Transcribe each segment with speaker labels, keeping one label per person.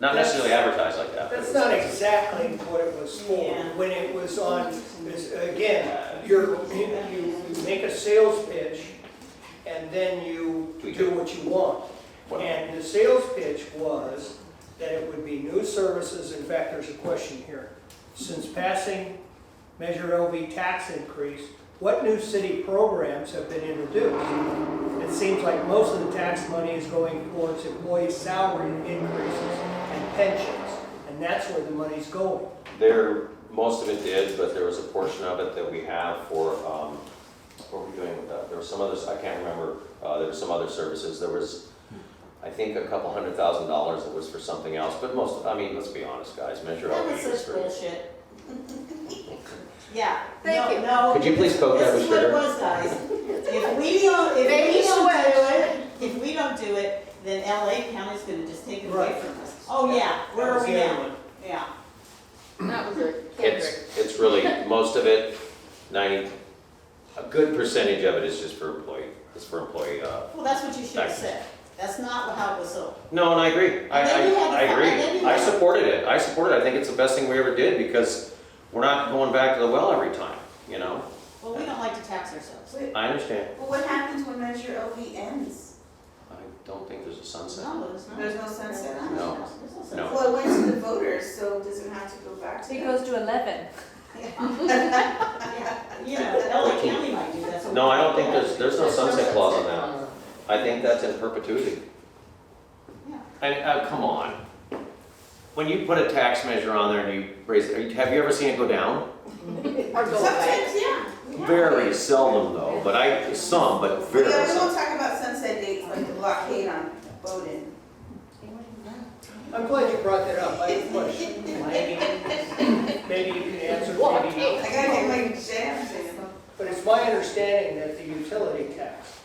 Speaker 1: Not necessarily advertised like that. but
Speaker 2: That's
Speaker 1: it's-
Speaker 2: not exactly what it was for,
Speaker 3: Yeah.
Speaker 2: when it was on, is- again, you're, you you make a sales pitch, and then you
Speaker 1: Tweak
Speaker 2: do
Speaker 1: it.
Speaker 2: what you want.
Speaker 1: Well-
Speaker 2: And the sales pitch was that it would be new services, in fact, there's a question here. Since passing Measure LV tax increase, what new city programs have been introduced? It seems like most of the tax money is going towards employee salary increases and pensions, and that's where the money's going.
Speaker 1: There, most of it did, but there was a portion of it that we have for, um, what were we doing with that? There was some others, I can't remember, uh, there were some other services, there was, I think, a couple hundred thousand dollars that was for something else, but most, I mean, let's be honest, guys, Measure
Speaker 3: That
Speaker 1: LV
Speaker 3: was
Speaker 1: is
Speaker 3: such
Speaker 1: for.
Speaker 3: bullshit. Yeah.
Speaker 4: Thank
Speaker 3: no,
Speaker 4: you.
Speaker 3: No.
Speaker 1: Could you please poke that with
Speaker 3: This is what it
Speaker 1: sugar?
Speaker 3: was, guys. If we don't, if
Speaker 4: Baby
Speaker 3: we don't do
Speaker 4: sweat.
Speaker 3: it, if we don't do it, then LA County's gonna just take it away
Speaker 2: Right.
Speaker 3: from us. Oh, yeah, where
Speaker 2: That was
Speaker 3: are we
Speaker 2: the other
Speaker 3: now?
Speaker 2: one.
Speaker 3: Yeah.
Speaker 4: That was a Kendrick.
Speaker 1: It's, it's really, most of it, ninety, a good percentage of it is just for employee, is for employee, uh,
Speaker 3: Well, that's what you should have
Speaker 1: Taxes.
Speaker 3: said. That's not how it was sold.
Speaker 1: No, and I agree. I,
Speaker 3: And then you had
Speaker 1: I, I
Speaker 3: the- and then
Speaker 1: agree.
Speaker 3: you
Speaker 1: I
Speaker 3: had-
Speaker 1: supported it. I supported it. I think it's the best thing we ever did because we're not going back to the well every time, you know?
Speaker 3: Well, we don't like to tax ourselves.
Speaker 1: I understand.
Speaker 5: Well, what happens when Measure LV ends?
Speaker 1: I don't think there's a sunset.
Speaker 3: No, there's not.
Speaker 5: There's no sunset on it.
Speaker 1: No.
Speaker 3: There's no
Speaker 1: No.
Speaker 3: sunset.
Speaker 5: Well, it went to the voters, so does it have to go back to
Speaker 4: It
Speaker 5: them?
Speaker 4: goes to eleven.
Speaker 3: You know, LA County might do that. so-
Speaker 1: No, I don't think there's, there's no sunset clause on that. I think that's in perpetuity.
Speaker 3: Yeah.
Speaker 1: And, uh, come on. When you put a tax measure on there and you raise, it, have you ever seen it go down?
Speaker 4: Or go away.
Speaker 5: Sometimes, yeah. yeah.
Speaker 1: Very seldom though, but I, some, but
Speaker 5: Yeah,
Speaker 1: very
Speaker 5: we
Speaker 1: seldom.
Speaker 5: won't talk about sunset dates like the blockade on Bowden.
Speaker 2: I'm glad you brought that up, I have a question. Maybe- Maybe you can answer, maybe
Speaker 5: I
Speaker 2: not.
Speaker 5: gotta get my jams in.
Speaker 2: But it's my understanding that the utility tax,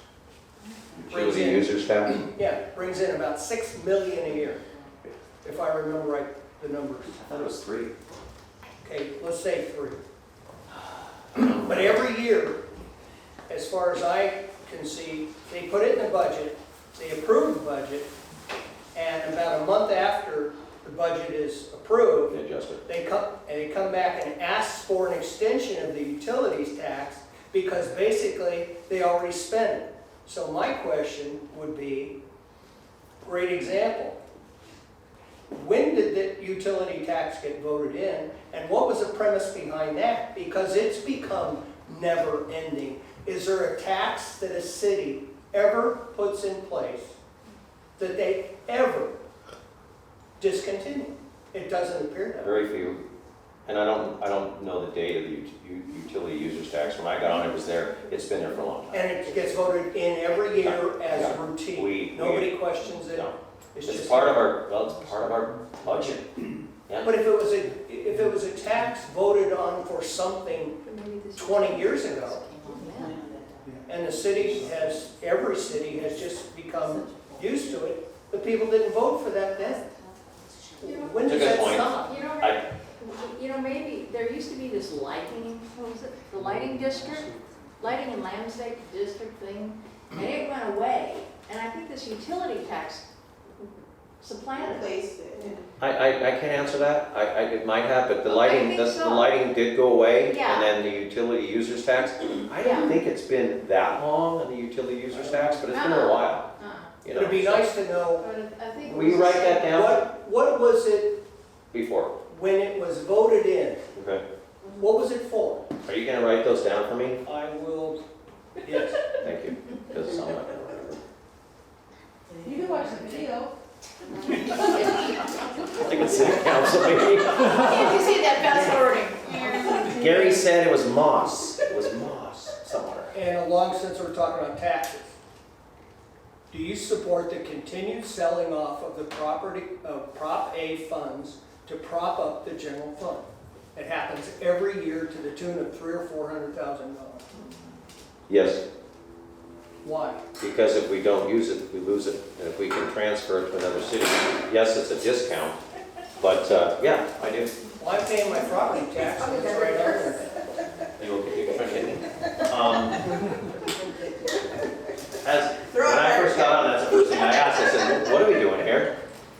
Speaker 1: Utility users tax?
Speaker 2: yeah, brings in about six million a year, if I remember right, the numbers.
Speaker 1: I thought it was three.
Speaker 2: Okay, let's say three. But every year, as far as I can see, they put it in the budget, they approve the budget, and about a month after the budget is approved,
Speaker 1: Adjustment.
Speaker 2: they come, and they come back and ask for an extension of the utilities tax because basically they already spent it. So my question would be, great example. When did the utility tax get voted in and what was the premise behind that? Because it's become never ending. Is there a tax that a city ever puts in place that they ever discontinue? It doesn't appear that way.
Speaker 1: Very few, and I don't, I don't know the date of the ut- u- utility users tax, when I got on it was there, it's been there for a long time.
Speaker 2: And it gets voted in every year as
Speaker 1: Yeah. We-
Speaker 2: routine.
Speaker 1: we-
Speaker 2: Nobody questions it.
Speaker 1: No.
Speaker 2: It's
Speaker 1: It's
Speaker 2: just,
Speaker 1: part of our, well, it's part of our budget.
Speaker 2: but if it was a, if it was a tax voted on for something 20 years ago, and the city has, every city has just become
Speaker 1: Um,
Speaker 2: used to it, the people didn't vote for that then. When does
Speaker 1: It's a good
Speaker 2: that
Speaker 1: point.
Speaker 2: stop?
Speaker 6: You know,
Speaker 1: I-
Speaker 6: you know, maybe, there used to be this lighting, what was it, the lighting district, lighting and landscape district thing, and it went away, and I think this utility tax supplanted it.
Speaker 5: Place it.
Speaker 1: I, I, I can't answer that, I, I, it might have, but the lighting,
Speaker 6: think
Speaker 1: the the
Speaker 6: so.
Speaker 1: lighting did go away,
Speaker 6: Yeah.
Speaker 1: and then the utility users tax. I
Speaker 6: Yeah.
Speaker 1: don't think it's been that long, in the utility users tax, but it's been a
Speaker 6: Uh-uh.
Speaker 1: while,
Speaker 6: Uh-uh.
Speaker 1: you know.
Speaker 2: It'd be nice to know,
Speaker 6: But I think it
Speaker 1: Will you
Speaker 6: was the
Speaker 1: write that
Speaker 6: same-
Speaker 1: down
Speaker 2: what, what was it
Speaker 1: before,
Speaker 2: when it was voted in?
Speaker 1: okay?
Speaker 2: What was it for?
Speaker 1: Are you gonna write those down for me?
Speaker 2: I will, yes.
Speaker 1: Thank you, because it's not like I remember.
Speaker 3: You can watch the video.
Speaker 1: I think it's city council meeting.
Speaker 4: Can't you see that fast forwarding?
Speaker 1: Gary said it was moss. It was moss somewhere.
Speaker 2: And along since we're talking about taxes, do you support the continued selling off of the property, of Prop A funds to prop up the general fund? It happens every year to the tune of three or four hundred thousand dollars.
Speaker 1: Yes,
Speaker 2: Why?
Speaker 1: because if we don't use it, we lose it. And if we can transfer it to another city, yes, it's a discount. But uh, yeah, I do.
Speaker 2: Well, I'm paying my property tax, and it's right under
Speaker 1: You will- you can try it. Um, As,